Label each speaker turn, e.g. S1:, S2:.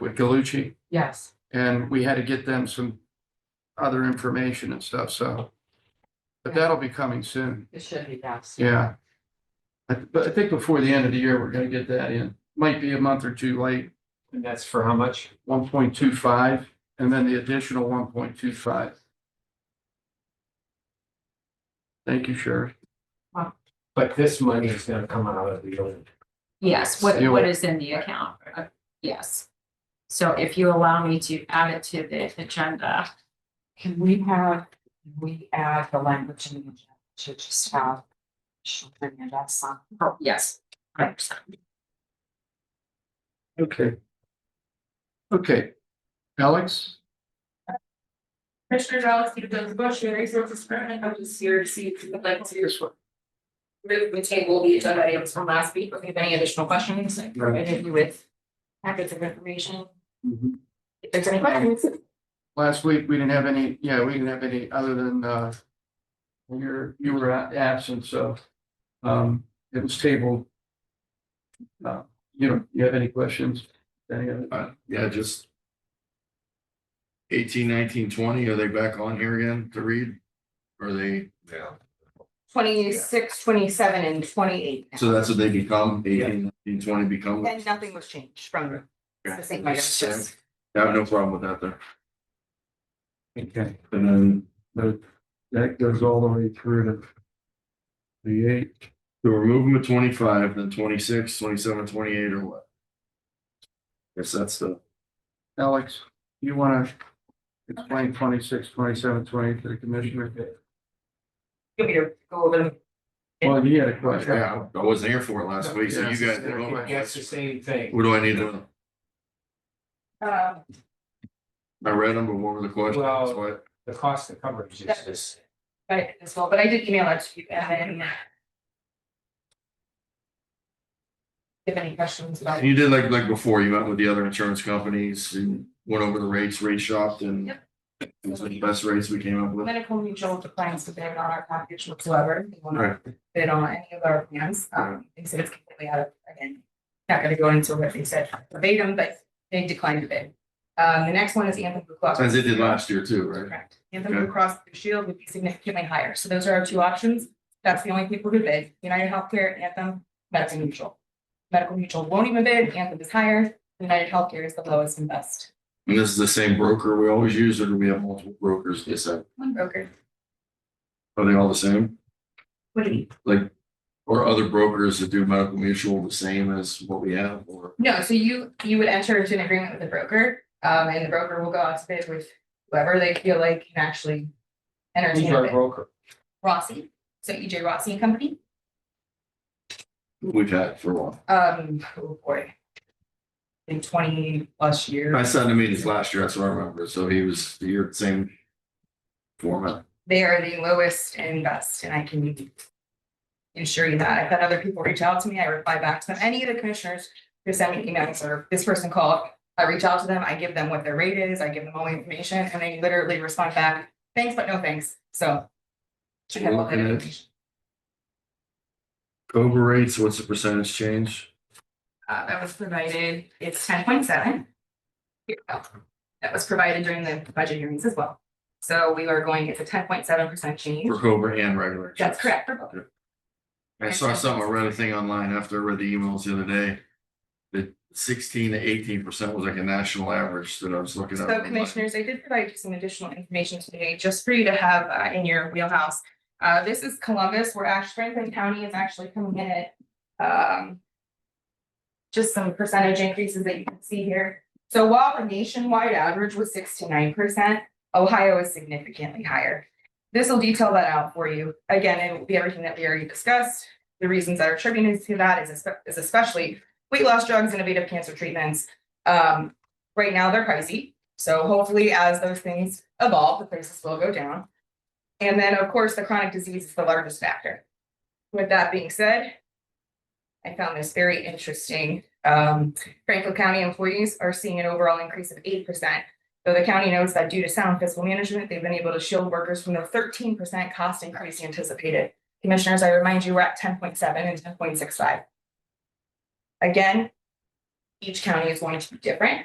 S1: with Galucci,
S2: Yes,
S1: and we had to get them some other information and stuff, so. But
S2: Yeah.
S1: that'll be coming soon,
S2: it should be, yes.
S1: yeah. I- But I think before the end of the year, we're gonna get that in. Might be a month or two late,
S3: And that's for how much?
S1: one point two five, and then the additional one point two five. Thank you, Sheriff.
S3: But this money is gonna come out of the old.
S4: Yes, what,
S1: You-
S4: what is in the account, Uh, yes. So if you allow me to add it to the agenda,
S2: Can we have, can we add the language in the agenda to just have. She'll bring it up some.
S4: oh, yes. 100%.
S1: Okay. Okay. Alex?
S5: Commissioner Delacy, Douglas Bush, Mary Frances Brennan, I'm just here to see if you would like to
S1: This one.
S5: move the table the agenda items from last week, if you have any additional questions, I provided you with packets of information. If there's any questions,
S1: Last week, we didn't have any, yeah, we didn't have any other than, uh, you're, you were a- absent, so, um, it was tabled. Uh, you know, you have any questions? Any of it?
S6: Uh, yeah, just. Eighteen, nineteen, twenty, are they back on here again to read? Are they,
S3: Yeah.
S7: twenty-six, twenty-seven and twenty-eight. now.
S6: so that's what they become, eighteen, nineteen, twenty become? I
S7: And nothing was changed from
S6: Yeah.
S7: the same items, just
S6: have no problem with that there.
S1: Okay,
S6: And then
S1: that, that goes all the way through to the eight.
S6: so we're moving to twenty-five, then twenty-six, twenty-seven, twenty-eight or what? Guess that's the,
S1: Alex, you wanna explain twenty-six, twenty-seven, twenty to the commissioner?
S5: give me to go over them.
S1: Well, you had a question.
S6: yeah, I wasn't here for it last week, so you guys. did all my
S3: That's the
S6: questions.
S3: same thing.
S6: What do I need to, know?
S5: Uh,
S6: I read them, but what were the questions?
S3: Well-
S6: What?
S3: The cost of coverage is this.
S5: but as well, but I did email it to you and then. If any questions about.
S6: And You did like, like before, you met with the other insurance companies and went over the rates, rate shopped and. It was the best rates we came up with.
S5: medical mutual with the plans, but they're not our package whatsoever. They will
S6: Right.
S5: not bid on any of our plans. Um, they said it's completely out of, again, not gonna go into what they said verbatim, but they declined the bid. Um, the next one is Anthem Blue Cross.
S6: As they did last year too, right?
S5: Correct. Anthem
S6: Okay.
S5: Blue Cross Blue Shield would be significantly higher. So those are our two options. That's the only people who bid. United Healthcare, Anthem, Medical Mutual. Medical Mutual won't even bid. Anthem is higher. United Healthcare is the lowest and best.
S6: And this is the same broker we always use, or do we have multiple brokers? Yes, sir.
S5: One broker.
S6: Are they all the same?
S5: What do you?
S6: Like, or other brokers that do medical mutual the same as what we have or?
S5: No, so you, you would enter into an agreement with the broker, um, and the broker will go out to bid with whoever they feel like can actually
S6: E
S3: Who's
S5: entertain a
S3: our
S5: bid.
S3: broker?
S5: Rossi, so EJ Rossi and Company,
S6: We've had for a while.
S5: um, oh boy. In twenty plus
S6: I
S5: years,
S6: sat in the meetings last year, that's what I remember. So he was, you're the same format.
S5: they are the lowest and best, and I can ensure you that. I've had other people reach out to me, I reply back to them, any of the commissioners who send me emails or this person called, I reach out to them, I give them what their rate is, I give them all the information, and they literally respond back, thanks, but no thanks, so. Should have all that
S6: Okay.
S5: information.
S6: Cobra rates, what's the percentage change?
S5: Uh, that was provided, it's ten point seven. Here we go. That was provided during the budget hearings as well. So we are going, it's a ten point seven percent change.
S6: For Cobra and regular.
S5: That's
S6: insurance?
S5: correct for both.
S6: I saw something, I read a thing online after I read the emails the other day. That sixteen to eighteen percent was like a national average that I was looking at.
S5: So commissioners, I did provide you some additional information today, just for you to have uh, in your wheelhouse. Uh, this is Columbus, where Ash Franklin County is actually coming in at, um. Just some percentage increases that you can see here. So while the nationwide average was six to nine percent, Ohio is significantly higher. This will detail that out for you. Again, it will be everything that we already discussed. The reasons that are attributed to that is espe- is especially weight loss drugs, innovative cancer treatments. Um, right now they're pricey. So hopefully as those things evolve, the prices will go down. And then, of course, the chronic disease is the largest factor. With that being said, I found this very interesting. Um, Franklin County employees are seeing an overall increase of eight percent. Though the county notes that due to sound fiscal management, they've been able to shield workers from the thirteen percent cost increase anticipated. Commissioners, I remind you, we're at ten point seven and ten point six five. Again, each county is going to be different.